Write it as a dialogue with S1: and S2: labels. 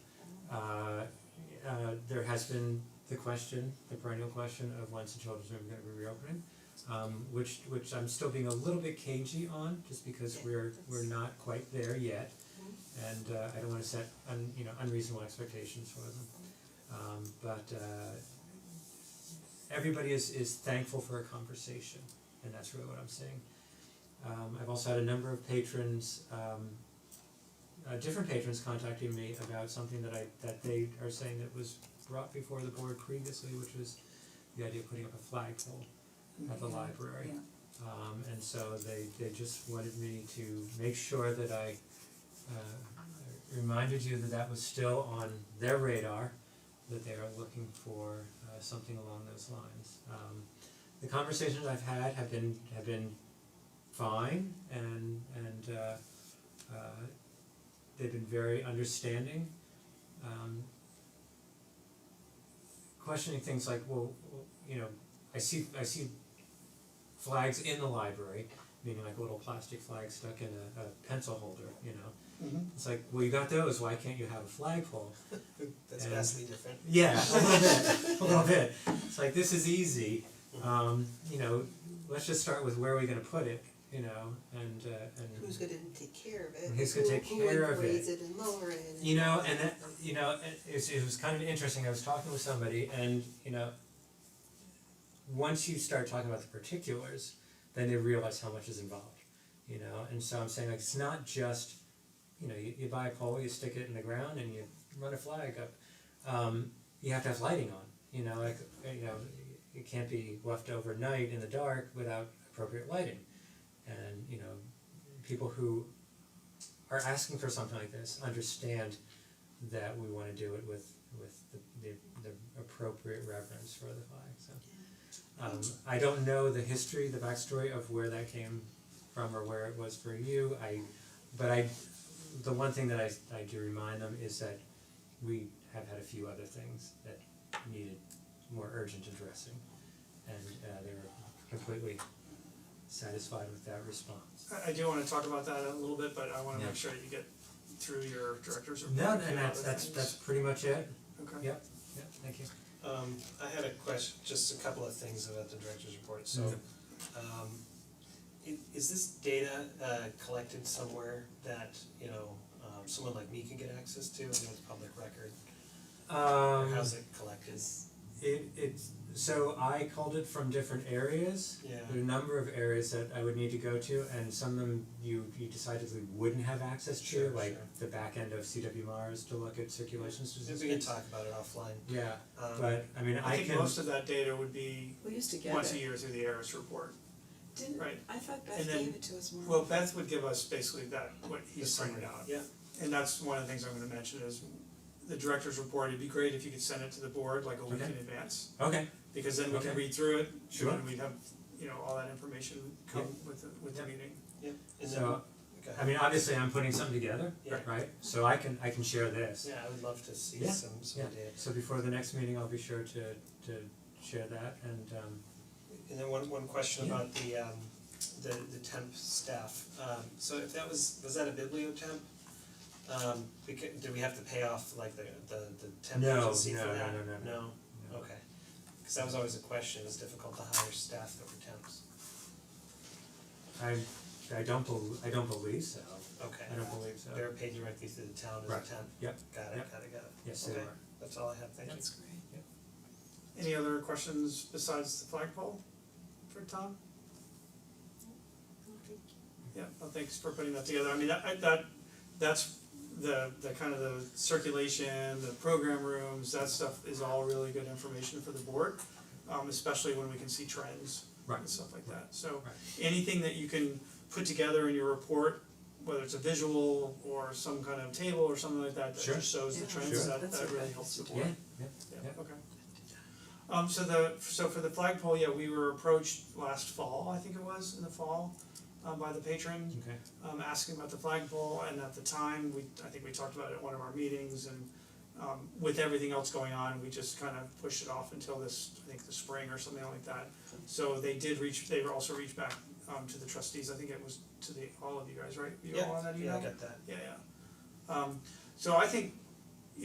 S1: Uh, has been the question, the perennial question of when's the children's room gonna be reopening. Um which which I'm still being a little bit cagey on, just because
S2: Yeah,
S1: we're
S2: that's-
S1: we're not quite there yet. And uh I don't wanna set un you know, unreasonable expectations for them. Um but uh everybody is is thankful for a conversation, and that's really what I'm saying. Um I've also had a number of patrons um uh different patrons contacting me about something that I that they are saying that was brought before the board previously, which was the idea of putting up a flagpole at the library. Um and so they they just wanted me to make sure that I uh reminded you that that was still on their radar, that they are looking for uh something along those lines. Um the conversations I've had have been have been fine and and uh uh they've been very understanding. Um questioning things like, well, well, you know, I see I see flags in the library, meaning like a little plastic flag stuck in a, a pencil holder, you know.
S3: Mm-hmm.
S4: Mhm.
S1: It's like, well, you got those, why can't you have a flagpole?
S4: That's
S1: And-
S4: vastly different.
S1: Yeah, a little bit, a little bit. It's like, this is easy, um, you know, let's just start with where are we gonna put it, you know, and uh, and
S2: Who's gonna take care of it?
S1: Who's gonna take care of
S2: Who would raise it and lower it and-
S1: You know, and that, you know, it it was, it was kind of interesting, I was talking with somebody and, you know, once you start talking about the particulars, then they realize how much is involved, you know, and so I'm saying like, it's not just, you know, you you buy a pole, you stick it in the ground and you run a flag up. Um, you have to have lighting on, you know, like, you know, it can't be left overnight in the dark without appropriate lighting. And, you know, people who are asking for something like this understand that we wanna do it with with the the the appropriate reverence for the flag, so. Um I don't know the history, the backstory of where that came from or where it was for you, I but I the one thing that I I do remind them is that we have had a few other things that needed more urgent addressing and uh they were completely satisfied with that response.
S3: I I do wanna talk about that a little bit, but I wanna
S1: Yeah.
S3: make sure that you get through your director's report.
S1: No,
S3: and
S1: and that's
S3: other
S1: that's
S3: things.
S1: that's pretty much it,
S3: Okay.
S1: yep, yep, thank you.
S4: Um I had a question, just a couple of things about the director's report, so um i- is this data uh collected somewhere that, you know, um someone like me can get access to, I know it's public record, or
S1: Um
S4: how's it collected?
S1: it it's so I called it from different areas.
S4: Yeah,
S1: There are a number of areas that I would need to go to and some of them you you decidedly wouldn't have access to,
S4: Sure,
S1: like
S4: sure.
S1: the back end of CWRs to look at circulation
S4: Maybe we can
S1: statistics.
S4: talk about it offline,
S1: Yeah,
S4: um
S1: but I mean
S3: I
S1: I
S3: think
S1: can,
S3: most of that data would be
S5: We used to get
S3: once a
S5: it,
S3: year through the ARIS report,
S5: didn't,
S3: right?
S5: I thought
S3: And
S5: Beth
S3: then-
S5: gave it to us more.
S3: Well, Beth would give us basically that, what
S4: the
S3: he's
S4: summary.
S3: printed out.
S4: Yeah,
S3: And that's one of the things I'm gonna mention is the director's report, it'd be great if you could send it to the board like a week
S1: Okay.
S3: in advance.
S1: okay,
S3: Because then we can
S1: Okay.
S3: read through it, and
S1: Sure.
S3: then we'd have, you know, all that information come with the with the
S1: Yeah.
S3: meeting.
S4: and then,
S1: so
S4: okay.
S1: I mean obviously I'm putting something together,
S4: Yeah.
S1: right? So I can I can share this.
S4: Yeah, I would love to see
S1: Yeah,
S4: some some
S1: yeah.
S4: data.
S1: So before the next meeting, I'll be sure to to share that and um
S4: And then one one question
S1: Yeah.
S4: about the um the the temp staff, um so if that was, was that a biblio temp? Um becau- do we have to pay off like the the the temp
S1: No,
S4: agency for
S1: no, no,
S4: that?
S1: no, no, no. No.
S4: okay, cause that was always a question, it was difficult to hire staff that were temps,
S1: I I don't bel- I don't believe so.
S4: okay.
S1: I don't believe so.
S4: They're paid directly through the town as a
S1: Right.
S4: temp,
S1: Yep.
S4: got it,
S1: Yep.
S4: got it, got it,
S1: Yes, they
S4: Okay.
S1: are.
S4: that's all I have, thank you.
S5: That's great.
S3: Any other questions besides the flagpole for Tom? Yeah, well, thanks for putting that together, I mean, that, I- that, that's the, the kind of the circulation, the program rooms, that stuff is all really good information for the board. Um, especially when we can see trends
S1: Right.
S3: and stuff like that, so
S1: Right.
S3: anything that you can put together in your report, whether it's a visual or some kind of table or something like that, that
S1: Sure.
S3: just shows the
S5: Yeah,
S3: trends,
S1: Sure.
S3: that,
S5: that's
S3: that
S5: what
S3: really
S5: I
S3: helps the
S5: used to
S3: board.
S1: yeah.
S3: Yeah, okay. Um so the so for the flagpole, yeah, we were approached last fall, I think it was, in the fall, um by the patron
S1: Okay.
S3: um asking about the flagpole and at the time, we I think we talked about it at one of our meetings and um with everything else going on, we just kind of pushed it off until this, I think the spring or something like that. So they did reach, they were also reached back um to the trustees, I think it was to the all of you guys, right? You all on that email?
S4: Yeah, yeah, I got that,
S3: Yeah, yeah. Um so I think